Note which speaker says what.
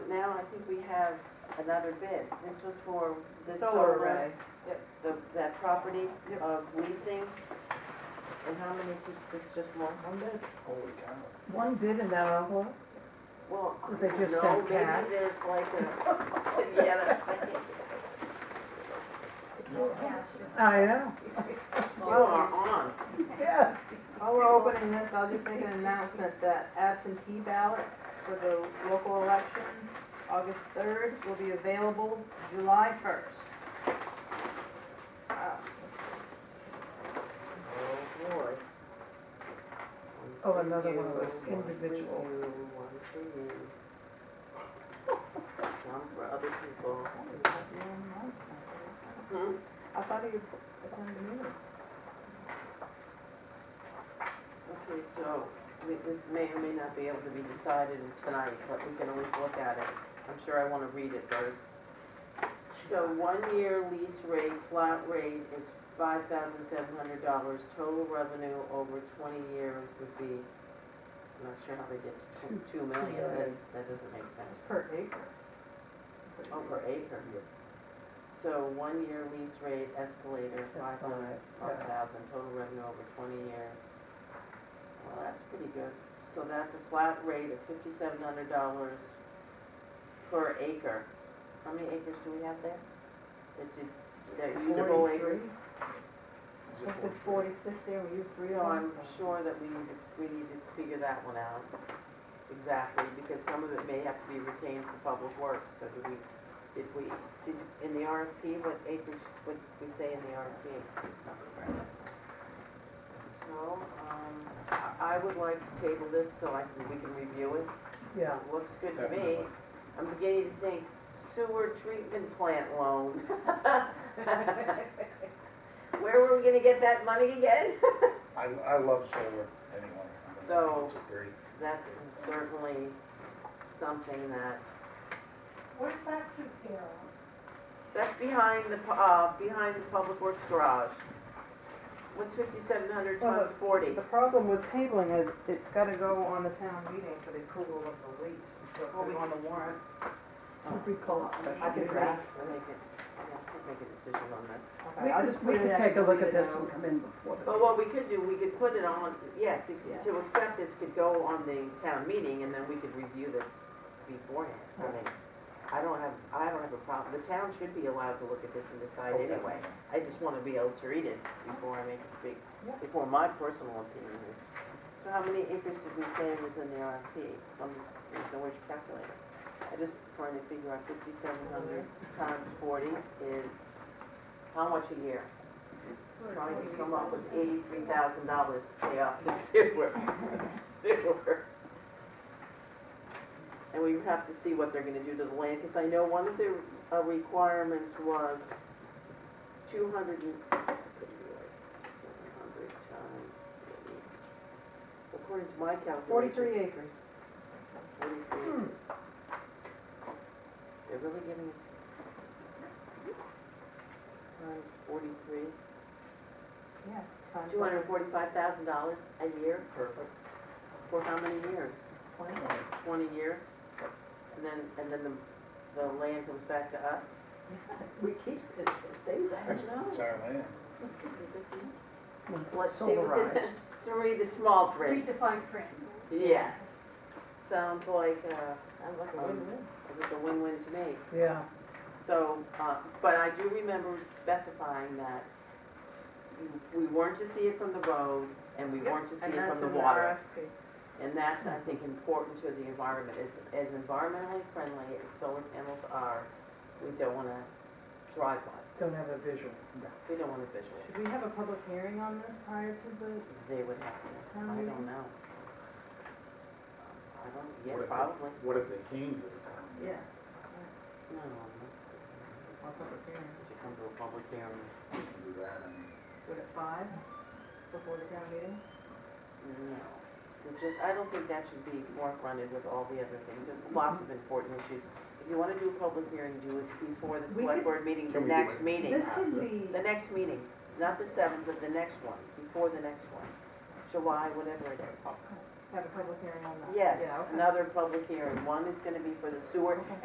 Speaker 1: think we have another bid. This was for the
Speaker 2: Solar
Speaker 1: solar
Speaker 2: array.
Speaker 1: array. The, that property
Speaker 2: Yep.
Speaker 1: of leasing. And how many, pe- it's just one?
Speaker 2: One bid.
Speaker 3: Holy cow.
Speaker 4: One bid and that envelope?
Speaker 1: Well, I
Speaker 4: They
Speaker 1: don't
Speaker 4: just
Speaker 1: know,
Speaker 4: said cash.
Speaker 1: maybe there's like a, yeah, that's, I think,
Speaker 4: I know,
Speaker 1: you are on.
Speaker 4: yeah.
Speaker 2: While we're opening this, I'll just make an announcement that absentee ballots for the local election, August 3rd, will be available July 1st. Uh,
Speaker 1: Oh, Lord.
Speaker 4: Oh, another one of
Speaker 1: for you,
Speaker 4: those individual.
Speaker 1: One for you, one for you. Some for other people.
Speaker 4: Oh,
Speaker 1: Hmm?
Speaker 2: I thought you attended the meeting.
Speaker 1: Okay, so we- this may or may not be able to be decided tonight, but we can always look at it. I'm sure I want to read it first. So one-year lease rate, flat rate is five thousand seven hundred dollars. Total revenue over twenty years would be, I'm not sure how they get to two- two million, that, that doesn't make sense.
Speaker 2: It's per acre.
Speaker 1: Oh, per acre.
Speaker 3: Yeah.
Speaker 1: So one-year lease rate escalator, five
Speaker 4: all
Speaker 1: hundred,
Speaker 4: right,
Speaker 1: five
Speaker 4: yeah.
Speaker 1: thousand, total revenue over twenty years. Well, that's pretty good. So that's a flat rate of fifty-seven hundred dollars per acre. How many acres do we have there? That you, that are usable acres?
Speaker 3: Is it
Speaker 4: It's forty-six there, we used three
Speaker 1: So I'm
Speaker 4: arms.
Speaker 1: sure that we need to, we need to figure that one out exactly, because some of it may have to be retained for public works, so do we, did we, did, in the RFP, what acres, what did we say in the RFP? So, um, I, I would like to table this so I can, we can review it.
Speaker 4: Yeah,
Speaker 1: It Looks good to me.
Speaker 3: Definitely.
Speaker 1: I'm beginning to think sewer treatment plant loan. Where were we gonna get that money again?
Speaker 3: I, I love solar anyway. I mean,
Speaker 1: So-
Speaker 3: It's a great,
Speaker 1: That's certainly something that,
Speaker 5: Where's that two pair on?
Speaker 1: that's behind the, pu- uh, behind the Public Works garage. What's fifty-seven hundred
Speaker 2: Well,
Speaker 1: times forty?
Speaker 2: The problem with tabling is it's gotta go on the town meeting for the approval of the lease. So it's gonna go on the warrant.
Speaker 4: we call it
Speaker 1: I
Speaker 4: special.
Speaker 1: could make,
Speaker 4: draft.
Speaker 1: I make it, yeah, I could make a decision on this.
Speaker 2: Okay,
Speaker 4: We
Speaker 2: I'll just
Speaker 4: could, we
Speaker 2: put it
Speaker 4: could
Speaker 2: in
Speaker 4: take a
Speaker 2: the
Speaker 4: look at
Speaker 2: meeting
Speaker 4: this and
Speaker 2: now.
Speaker 4: come in before the.
Speaker 1: But what we could do, we could put it on, yes, if-
Speaker 2: Yeah.
Speaker 1: to accept this could go on the town meeting and then we could review this beforehand. I mean, I don't have, I don't have a problem. The town should be allowed to look at this and decide
Speaker 3: oh,
Speaker 1: anyway.
Speaker 3: definitely.
Speaker 1: I just want to be able to read it before I make a big,
Speaker 2: Yeah.
Speaker 1: before my personal opinion is. So how many acres did we say was in the RFP? So I'm just, there's no way to calculate it. I just trying to figure out fifty-seven hundred times forty is how much a year? Trying to come up with eighty-three thousand dollars to pay off the sewer, sewer. And we have to see what they're gonna do to the land, because I know one of their uh, requirements was two hundred and, seven hundred times forty. According to my calculations.
Speaker 2: Forty-three acres.
Speaker 1: Forty-three acres. They're really giving us times uh, forty-three,
Speaker 2: Yeah. times
Speaker 1: two hundred and forty-five thousand dollars a year
Speaker 3: Perfect.
Speaker 1: for how many years?
Speaker 2: twenty.
Speaker 1: Twenty years? And then, and then the, the land comes back to us?
Speaker 4: We keep, it stays
Speaker 3: That's it's our land.
Speaker 1: Let's see what the,
Speaker 4: Silverized.
Speaker 1: so read the small print.
Speaker 5: Redefined print.
Speaker 1: Yes. Sounds like, uh,
Speaker 2: Sounds like
Speaker 1: a win-win. it's a win-win to me.
Speaker 4: Yeah,
Speaker 1: So, uh, but I do remember specifying that we weren't to see it from the road and we weren't to see it from the water. And that's, I think, important to the environment, as, as environmentally friendly as solar panels are, we don't wanna drive by,
Speaker 4: don't have a visual.
Speaker 1: we don't want a visual.
Speaker 2: Should we have a public hearing on this prior to the,
Speaker 1: They would have to, I don't know. I don't,
Speaker 3: What if
Speaker 1: yeah,
Speaker 3: it-
Speaker 1: probably.
Speaker 3: What if they came to the town?
Speaker 2: yeah,
Speaker 1: No, no, no.
Speaker 2: our public hearing?
Speaker 1: Did you come to a public hearing?
Speaker 3: We can do that, I mean,
Speaker 2: Would at five, before the town meeting?
Speaker 1: No, It just, I don't think that should be forefronted with all the other things, there's lots of important issues. If you wanna do a public hearing, do it before the
Speaker 2: We
Speaker 1: select
Speaker 2: could-
Speaker 1: board meeting, the
Speaker 3: Can we do
Speaker 1: next
Speaker 3: it?
Speaker 1: meeting.
Speaker 2: This can be,
Speaker 1: The next meeting, not the seventh, but the next one, before the next one, July, whatever it is.
Speaker 2: have a public hearing on that.
Speaker 1: Yes,
Speaker 2: Yeah, okay.
Speaker 1: another public hearing, one is gonna be for the sewer,
Speaker 2: Okay.